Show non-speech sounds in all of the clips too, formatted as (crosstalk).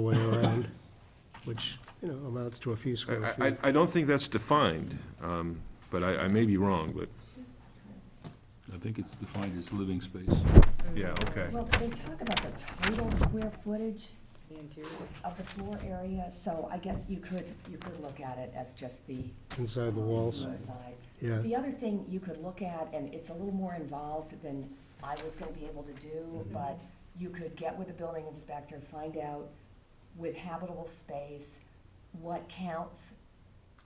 way around, which, you know, amounts to a few square I, feet. I- I don't think that's defined, um, but I, I may be wrong, but, I think it's defined as living space. yeah, okay. Well, they talk about the total square footage The interior. of the floor area, so I guess you could, you could look at it as just the. Inside the walls, inside. yeah. The other thing you could look at, and it's a little more involved than I was gonna be able to do, but you could get with the building inspector, find out with habitable space, what counts.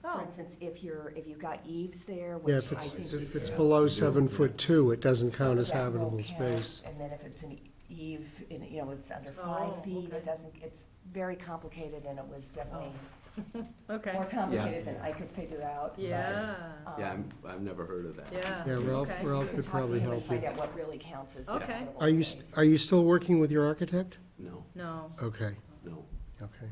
Oh. For instance, if you're, if you've got eaves there, Yeah, which if I it's, think. if you it's do, below seven foot two, it doesn't some of count as that will habitable count, space. And then if it's an eve, in- you know, it's under five Oh, feet, okay. Oh, it doesn't, it's very complicated, and it was definitely Okay, more complicated than I could figure out. but, yeah, um, Yeah, I'm, I've never heard of that. yeah. Yeah, Ralph, Okay. Ralph We could talked to probably him and help you. Find out what really counts as Okay. habitable Are you, space. st- are you still working with your architect? No, No, Okay, no. okay.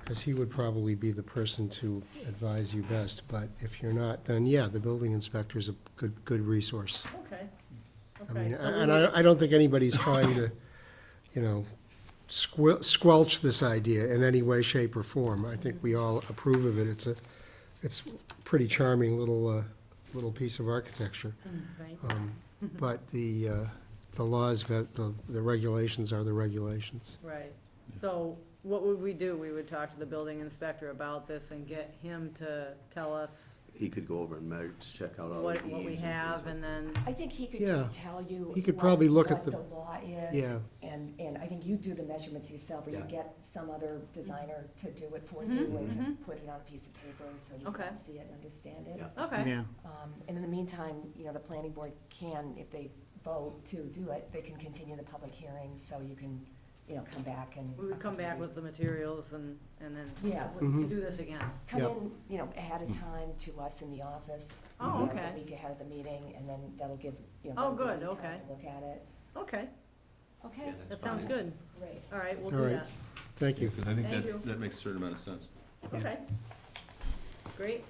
Because he would probably be the person to advise you best, but if you're not, then yeah, the building inspector's a good, good resource. okay, I mean, okay. so we and I, I don't think anybody's trying to, you know, squel- squelch this idea in any way, shape, or form. I think we all approve of it. It's a, it's pretty charming little, uh, little piece of architecture. would- right. Um, Mm-hmm. But the, uh, the laws got, the, the regulations are the regulations. Right, so what would we do? We would talk to the building inspector about this and get him to tell us He could go over and measure, just check out all the what, what eaves we and have things and then, I think he could Yeah. just tell you. He could what- probably look at what the- law is. Yeah. And, and I think you do the measurements yourself, or you Yeah. get some other designer to do it for Mhm, you, and to mhm. put it on a piece of paper, so you Okay. can see it and understand it. Yeah. okay, Um, and in the meantime, you know, the planning board can, if they vote to do it, they can continue the public hearing, so you can, you know, come back and. we would come back with the materials and, and then Yeah, to Mhm. Mm-hmm. do this again. come Yep. in, you know, ahead of time to us in the office. Oh, you know, okay. A week ahead of the meeting, and then that'll give, you know. Oh, everybody good, time okay. to Look at it. Okay, Okay, Yeah. that That's sounds fine. good. great. All right, we'll All do right. that. Thank you. Because I think Thank you. that, that makes a certain amount of sense. Okay. Great.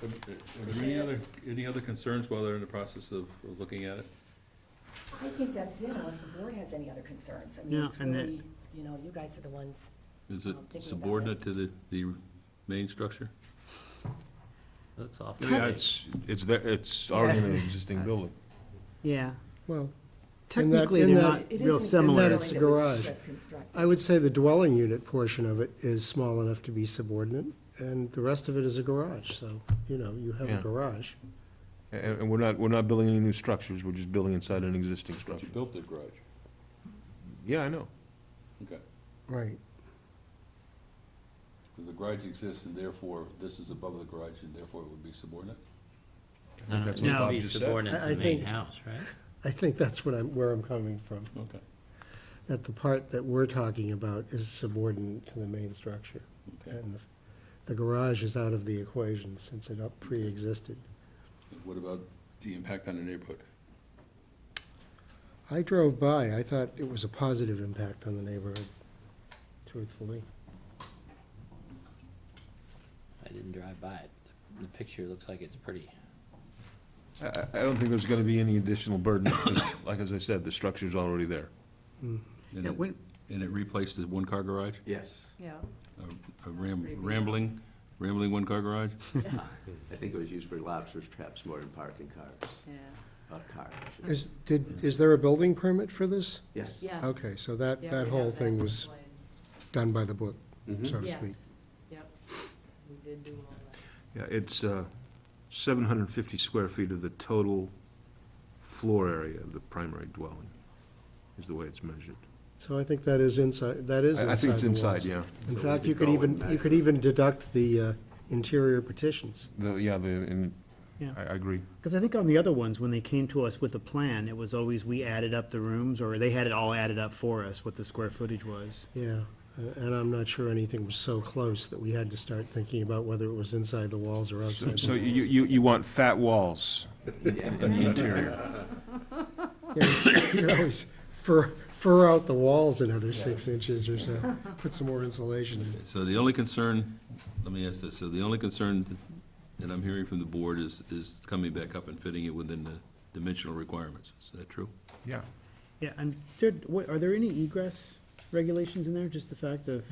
Are- Are there any other, any other concerns while they're in the process of of looking at it? I think that's it, unless the board has any other concerns. I mean, Yeah, it's and that- really, you know, you guys are the ones. Is I'm it thinking about it. subordinate to the, the main structure? Looks awful. Yeah, it's, it's, there- it's already in an existing building. Yeah, Well, In that- technically, in they're that- not It real isn't similar. that it's a that was garage. just constructed. I would say the dwelling unit portion of it is small enough to be subordinate, and the rest of it is a garage, so, you know, you have a Yeah. garage. And, and we're not, we're not building any new structures, we're just building inside an existing But you structure. built the garage. Yeah, I know. Okay. Right. So the garage exists and therefore this is above the garage and therefore it would be subordinate? I think that's what No. Bob Be just said. subordinate I- to I the main think- house, right? I think that's what I'm, where I'm coming from, Okay. that the part that we're talking about is subordinate to the main structure. Okay. And the- the garage is out of the equation since it up pre-existed. What about the impact on the neighborhood? I drove by, I thought it was a positive impact on the neighborhood, truthfully. I didn't drive by it. The picture looks like it's pretty. I, I- I don't think there's gonna be any additional burden, 'cause, like as I said, the structure's already there. And it- and it replaced the one-car garage? Yes, Yeah, A- A ram- rambling, rambling one-car garage? (laughs) I think it was used for lobsters, traps, more than parking cars, yeah, uh, cars. I should Is, did, is there a building permit for this? Yes. yeah. Okay, so that, Yeah, that we whole have thing that was explained. done by the book, Mm-hmm. Mhm. so to Yeah. speak. Yep, we did do all that. Yeah, it's, uh, seven hundred and fifty square feet of the total floor area of the primary dwelling, is the way it's measured. So I think that is inside, that is inside I I think it's the inside, walls. yeah. In So fact, we you could go even, and you could measure. even deduct the uh, interior partitions. The, yeah, the, and, Yeah. I, I agree. Because I think on the other ones, when they came to us with a plan, it was always we added up the rooms, or they had it all added up for us, what the square footage was. Yeah, uh, and I'm not sure anything was so close that we had to start thinking about whether it was inside the walls or outside. the So walls. you, you, you want fat walls in the interior. You could always fur, fur out the walls another six inches or so, put some more insulation in. So the only concern, let me ask this, so the only concern that I'm hearing from the board is, is coming back up and fitting it within the dimensional requirements. Is that true? Yeah. Yeah, and there, what, are there any egress regulations in there, just the fact of